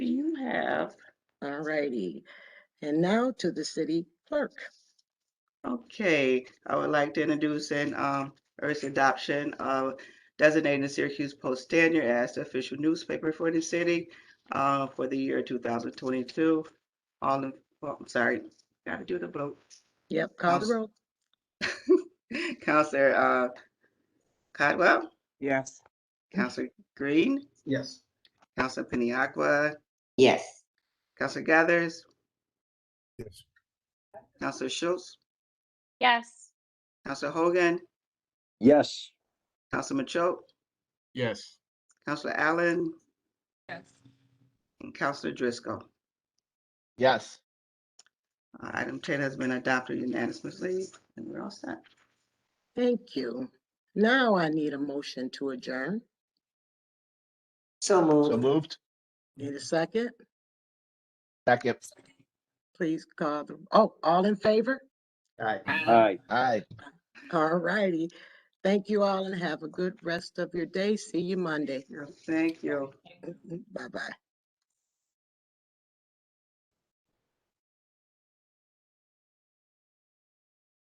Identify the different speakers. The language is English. Speaker 1: have.
Speaker 2: All righty. And now to the city clerk.
Speaker 3: Okay, I would like to introduce and um urge adoption of designating the Syracuse Post Standard as the official newspaper for the city uh for the year two thousand twenty-two. All in, well, I'm sorry, gotta do the vote.
Speaker 2: Yep, call the
Speaker 3: Awesome.
Speaker 2: roll.
Speaker 3: Counselor uh Codwell,
Speaker 4: Yes.
Speaker 3: Counselor Green,
Speaker 5: Yes.
Speaker 3: Counselor Piniaqua,
Speaker 6: yes,
Speaker 3: Counselor Gathers,
Speaker 7: yes,
Speaker 3: Counselor Schultz,
Speaker 8: yes.
Speaker 3: Counselor Hogan,
Speaker 9: yes.
Speaker 3: Counselor Machoke,
Speaker 5: Yes.
Speaker 3: Counselor Allen,
Speaker 8: Yes.
Speaker 3: and Counselor Driscoll.
Speaker 5: Yes.
Speaker 3: Uh, Item ten has been adopted unanimously, and we're all set.
Speaker 2: Thank you. Now I need a motion to adjourn.
Speaker 6: so
Speaker 5: So
Speaker 6: moved,
Speaker 5: moved.
Speaker 2: Need a second?
Speaker 5: Second.
Speaker 2: Please call the, oh, all in favor?
Speaker 5: Aye.
Speaker 9: Aye.
Speaker 5: Aye.
Speaker 2: All righty. Thank you all and have a good rest of your day. See you Monday.
Speaker 3: Thank you.
Speaker 2: Bye-bye.